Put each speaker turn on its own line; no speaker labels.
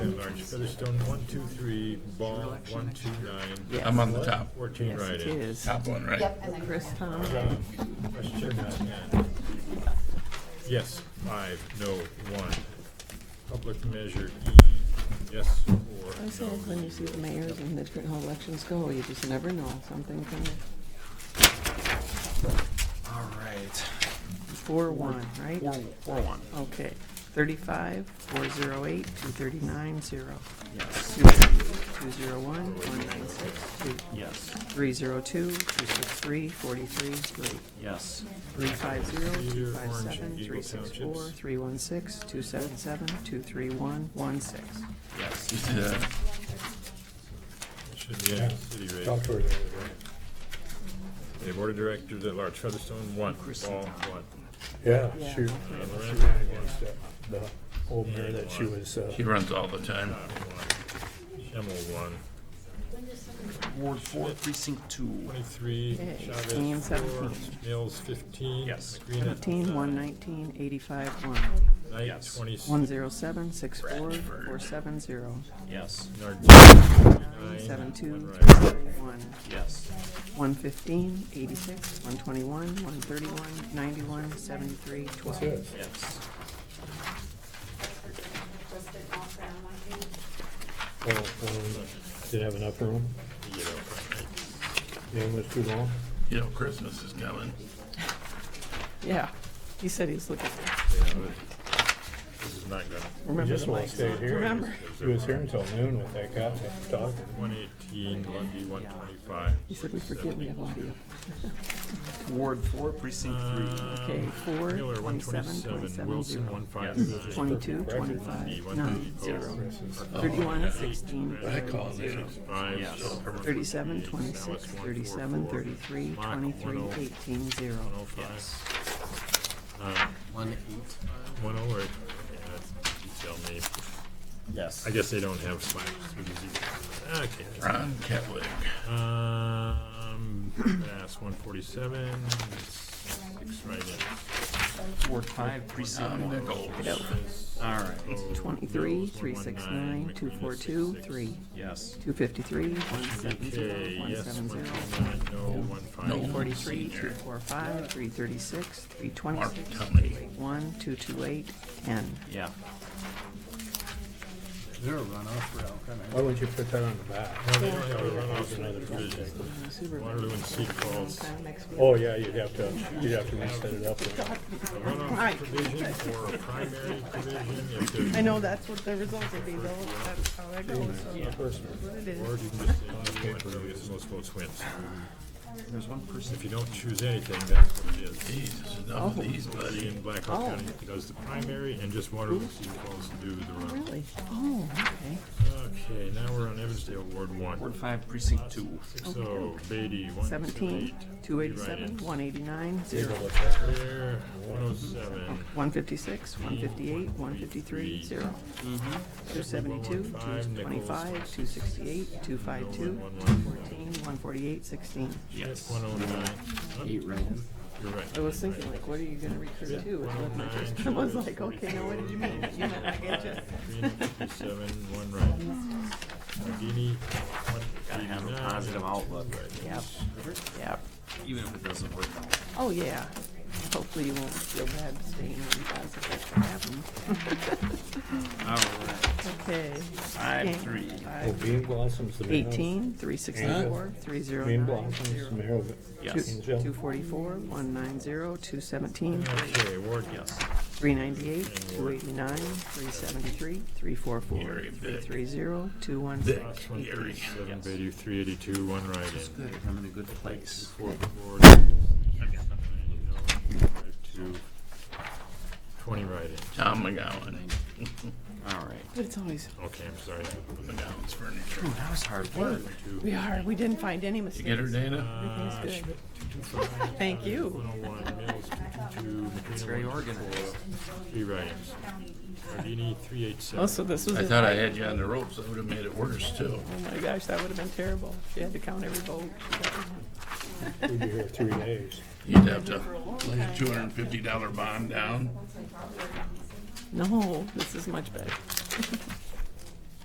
orange.
Featherstone, one, two, three, Ball, one, two, nine.
Yes.
I'm on the top,
Fourteen
Yes, it
write-ins.
is.
top one, right?
Yep, and then.
Chris Tom.
John, question on that. Yes, five, no, one. Public measure E, yes or
I say,
no?
when you see the mayors and the different how elections go, you just never know. Something kind of
All right.
four one, right?
Four, four one,
Okay. Thirty-five, four zero eight, two thirty-nine, zero.
yes,
Two zero one, one nine six, two.
yes,
Three zero two, two six three, forty-three, three.
yes,
Three five zero, two
Leader,
five
Orange,
seven,
Eagle
three six four,
Townships.
three one six, two seven seven, two three one, one six.
yes. You see that?
It Should be in city rate.
Talk to her.
The board of directors at large, Featherstone, one, Ball, one.
Yeah,
Yeah.
she,
Uh,
she
Lorenz,
ran against that, the old mayor that she was, uh,
He runs all the time.
Scott, one. Schimmel, one.
Ward four, precinct two.
Twenty-three,
Okay, team
Chavez, four.
17.
Mills, fifteen.
Yes.
McGreena,
Fifteen, one
nine.
nineteen, eighty-five, one.
Knight,
Yes.
twenty-six.
One zero seven, six four,
Bradford.
four seven zero.
Yes,
Nardini,
Seven two,
one
one,
right.
yes,
one fifteen, eighty-six, one twenty-one, one thirty-one, ninety-one, seventy-three, twelve.
yes.
yes.
Well, um, Did it have enough room? Yeah, it was too long?
You know, Christmas is coming.
Yeah, he said he was looking,
This is not good.
remember
Just
the
won't
mics.
stay here.
Remember,
He was here until noon with that guy talking.
One eighteen, Lundy, one twenty-five.
he said we forget we have audio.
Ward four, precinct three.
Okay, four,
Uh, Miller, one
twenty-seven,
twenty-seven,
twenty-seven,
Wilson,
zero.
one five.
Twenty-two,
Lundy,
twenty-five,
one
nine,
thirty,
zero.
Post.
Thirty-one, sixteen,
Oh. I call it zero.
Five.
Yes.
thirty-seven,
Alice,
twenty-six,
one, four,
thirty-seven,
four. oh
thirty-three,
Mock,
twenty-three,
10,
eighteen, zero.
105.
Yes.
Uh,
One eight.
One oh eight. Yeah, you tell me.
Yes.
I guess they don't have spikes. Okay.
Ron Ketlick.
Um, Bass, one forty-seven, six right
Ward five, precinct
in.
Nichols.
Nichols,
Um, All right,
Twenty-three,
Mills,
three, six,
119,
nine, two,
McManus,
four, two,
66.
three,
yes,
two fifty-three, one, seven,
Okay,
zero, one,
yes,
seven,
one
zero.
twenty-nine, no, one five.
No.
Forty-three,
Senior.
two, four, five, three, thirty-six, three,
Mark
twenty-six,
Tumney.
one, two, two, eight, ten.
Yeah.
Why wouldn't you put that on the back?
No, they don't have a runoff in other divisions.
Supervisor.
Waterloo and Sioux Falls.
Next week.
Oh, yeah, you'd have to, you'd have to reset it up.
A runoff provision or a primary provision, if there's.
I know that's what the results will be though, that's how that goes, so
A person.
what it is.
Or you can just say, whoever gets the most votes wins.
There's one person.
If you don't choose anything, that's what it is.
Jesus, enough of these,
Buddy
buddy.
in
Oh.
Blackhawk County does the primary and just Waterloo and Sioux Falls do the runoff.
Really? Oh, okay.
Okay, now we're on Evansdale, Ward one.
Ward five, precinct two.
Six oh, Beatty, one
Seventeen, two eighty-seven,
One
one eighty-nine, zero.
There, one oh seven.
One fifty-six, one fifty-eight, one fifty-three, zero. Two seventy-two, two twenty-five, two sixty-eight, two five two, fourteen, one forty-eight, sixteen.
Yes.
One oh nine.
Eight write-ins.
You're right. oh
I was thinking like, what are you gonna recur to? It wasn't my first- I was like, okay, now what did you mean? You meant I get
Three hundred fifty-seven, one right. Nardini, one
Gotta have a
eighty-nine.
positive outlook,
Yep, yep.
even if it doesn't work out.
Oh, yeah. Hopefully you won't feel bad staying on the positive. That's what happened.
All right,
Okay.
five, three.
Oh, Bean Blossom's the mayor. of-
Eighteen, three sixty-four, three zero nine,
Bean Blossom's the
zero.
mayor of
Yes.
Angel.
Two forty-four, one nine zero, two seventeen,
Okay, Ward,
Yes.
three ninety-eight, two eighty-nine, three seventy-three, three four four,
Gary
three
Vick.
three zero, two one six.
Ross, one
Gary.
thirty-seven,
Yes.
Beatty, three eighty-two, one right in.
Good, I'm in a good place.
Four, four, nine, no, five, two, Twenty right in.
Tom McGowan. All right.
But it's always,
Okay, I'm sorry.
McGowan's furniture.
Ooh, that was hard work.
Two.
We are, we didn't find any mistakes.
You get her, Dana?
Uh,
Everything's good.
Fine.
Thank you.
101, Mills, 222,
It's
McKenna,
very
124,
organized.
Three write-ins. Ardini, three eight
Oh,
seven.
so this was,
I
it.
thought
oh
I had you on the ropes. That would have made it worse too.
my gosh, that would have been terrible, if you had to count every vote.
We'd be here three days.
You'd have to lay a two hundred and fifty dollar bond down.
No, this is much better.